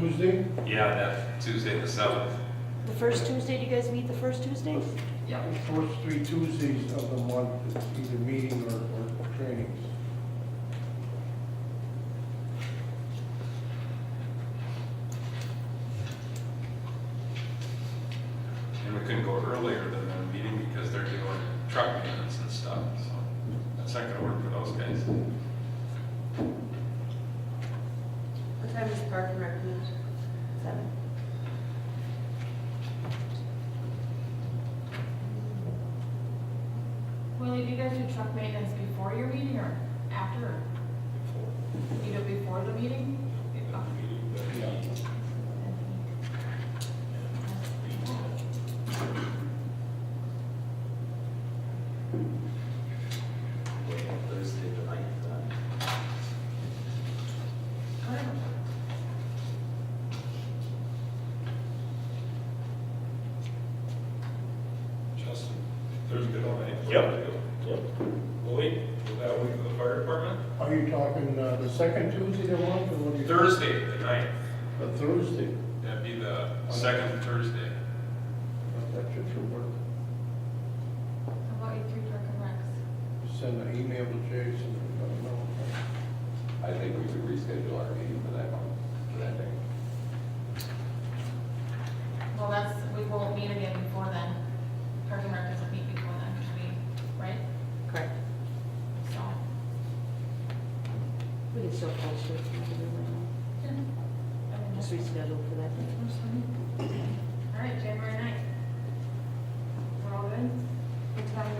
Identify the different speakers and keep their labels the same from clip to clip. Speaker 1: Tuesday?
Speaker 2: Yeah, that Tuesday the seventh.
Speaker 3: The first Tuesday, do you guys meet the first Tuesday?
Speaker 4: Yeah.
Speaker 1: The First three Tuesdays of the month, it's either meeting or, or trainings.
Speaker 2: And we couldn't go earlier than their meeting because they're doing truck maintenance and stuff, so that's not gonna work for those guys.
Speaker 5: What time is Park and Rec meet?
Speaker 3: Seven.
Speaker 6: Willie, do you guys do truck maintenance before your meeting or after? or You do it before the meeting?
Speaker 4: Thursday the ninth, uh,
Speaker 2: Justin, there's good on that.
Speaker 4: Yep. yep.
Speaker 2: Lloyd, will that work for the fire department?
Speaker 1: Are you talking, uh, the second Tuesday of the month or what? do you-
Speaker 2: Thursday, the ninth,
Speaker 1: A Thursday,
Speaker 2: that'd be the second Thursday.
Speaker 1: that should should work.
Speaker 6: How about you three truck and recs?
Speaker 1: Send an email to Jason, let him know.
Speaker 7: I think we could reschedule our meeting for that one, for that day.
Speaker 6: Well, that's, we won't meet again before then. Truck and rec doesn't meet before then, because we, right?
Speaker 5: Correct.
Speaker 6: So.
Speaker 3: We can still post it, not to do it right now.
Speaker 6: yeah. I mean,
Speaker 3: just
Speaker 6: just-
Speaker 3: reschedule for that day.
Speaker 6: All right, January ninth. We're all good? What time?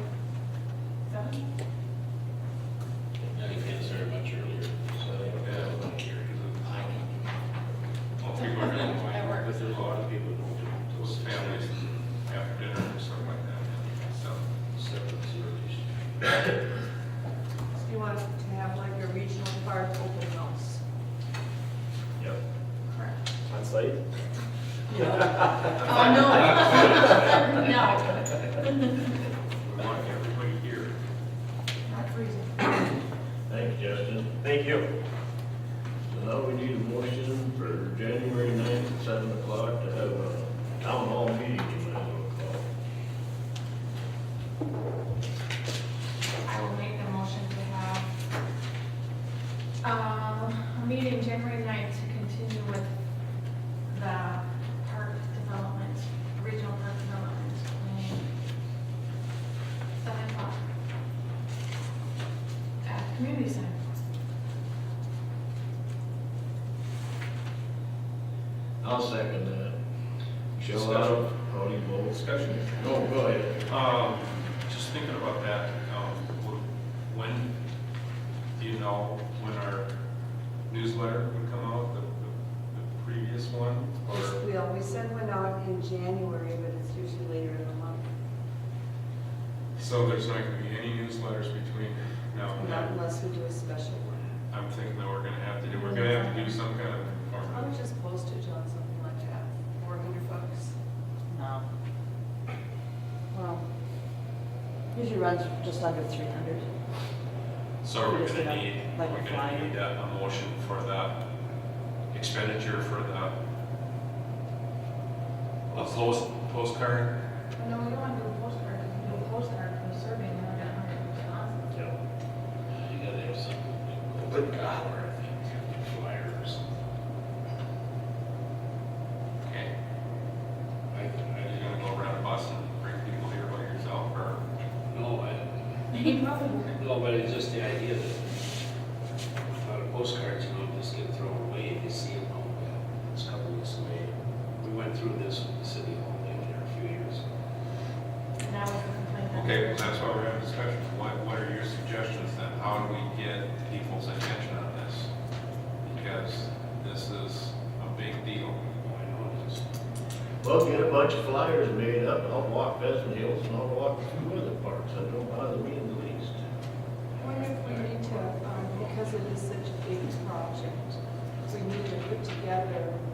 Speaker 6: Seven?
Speaker 8: Yeah, you can't start much earlier.
Speaker 2: Yeah.
Speaker 8: I can.
Speaker 2: Well, people are gonna want-
Speaker 6: That works.
Speaker 8: Because there's a lot of people who don't.
Speaker 2: Those families after dinner or something like that, so.
Speaker 8: Seven, zero.
Speaker 5: So you want to have like a regional park open house?
Speaker 4: Yep.
Speaker 5: Correct.
Speaker 4: On site?
Speaker 6: Oh, no.
Speaker 2: We
Speaker 6: No.
Speaker 2: want everybody here.
Speaker 6: Not freezing.
Speaker 4: Thanks, Justin. Thank you. So now we need a motion for January ninth at seven o'clock to have a town hall meeting, you might as well call it.
Speaker 6: I will make the motion to have, um, a meeting January ninth to continue with the park development, regional park development. plan. Seven o'clock. At the community center.
Speaker 4: I'll second that. Shall I?
Speaker 2: Discussion.
Speaker 4: How do you vote?
Speaker 2: Discussion.
Speaker 4: No, go ahead.
Speaker 2: Um, just thinking about that, um, wh- when, do you know when our newsletter would come out, the, the- the previous one? Or,
Speaker 5: We always send one out in January, but it's usually later in the month.
Speaker 2: so there's not gonna be any newsletters between now and
Speaker 5: Not
Speaker 2: then?
Speaker 5: unless we do a special one.
Speaker 2: I'm thinking that we're gonna have to do, we're gonna have to do some kind of
Speaker 5: Probably
Speaker 2: informative.
Speaker 5: just postage on something like that, four hundred bucks.
Speaker 3: No. Well, usually runs just under three hundred.
Speaker 2: So we're
Speaker 3: Just
Speaker 2: gonna
Speaker 3: like a-
Speaker 2: need,
Speaker 3: like a
Speaker 2: we're gonna
Speaker 3: flyer.
Speaker 2: need a, a motion for the expenditure for the a post, postcard?
Speaker 6: No, we don't want to do a postcard, because we do a postcard for the survey, and we're gonna have to respond.
Speaker 4: Yeah.
Speaker 8: Uh, You gotta have something. Good God. Or I think, flyers.
Speaker 2: Okay. Are you gonna go around a bus and bring people here by yourself, or?
Speaker 8: No, I, no, but it's just the idea that a lot of postcards, you know, just get thrown away and you see them all, uh, it's a couple weeks away. We went through this with the city hall in there a few years ago.
Speaker 6: And now we can complain. that-
Speaker 2: Okay, well, that's why we're having discussion. What, what are your suggestions then? How do we get people's attention on this? Because this is a big deal.
Speaker 8: I know it is.
Speaker 4: Well, get a bunch of flyers made up, I'll walk Pheasant Hills and I'll walk a few other parks, that don't bother me in the least.
Speaker 5: I wonder if we need to, um, because it is such a big project, we need to put together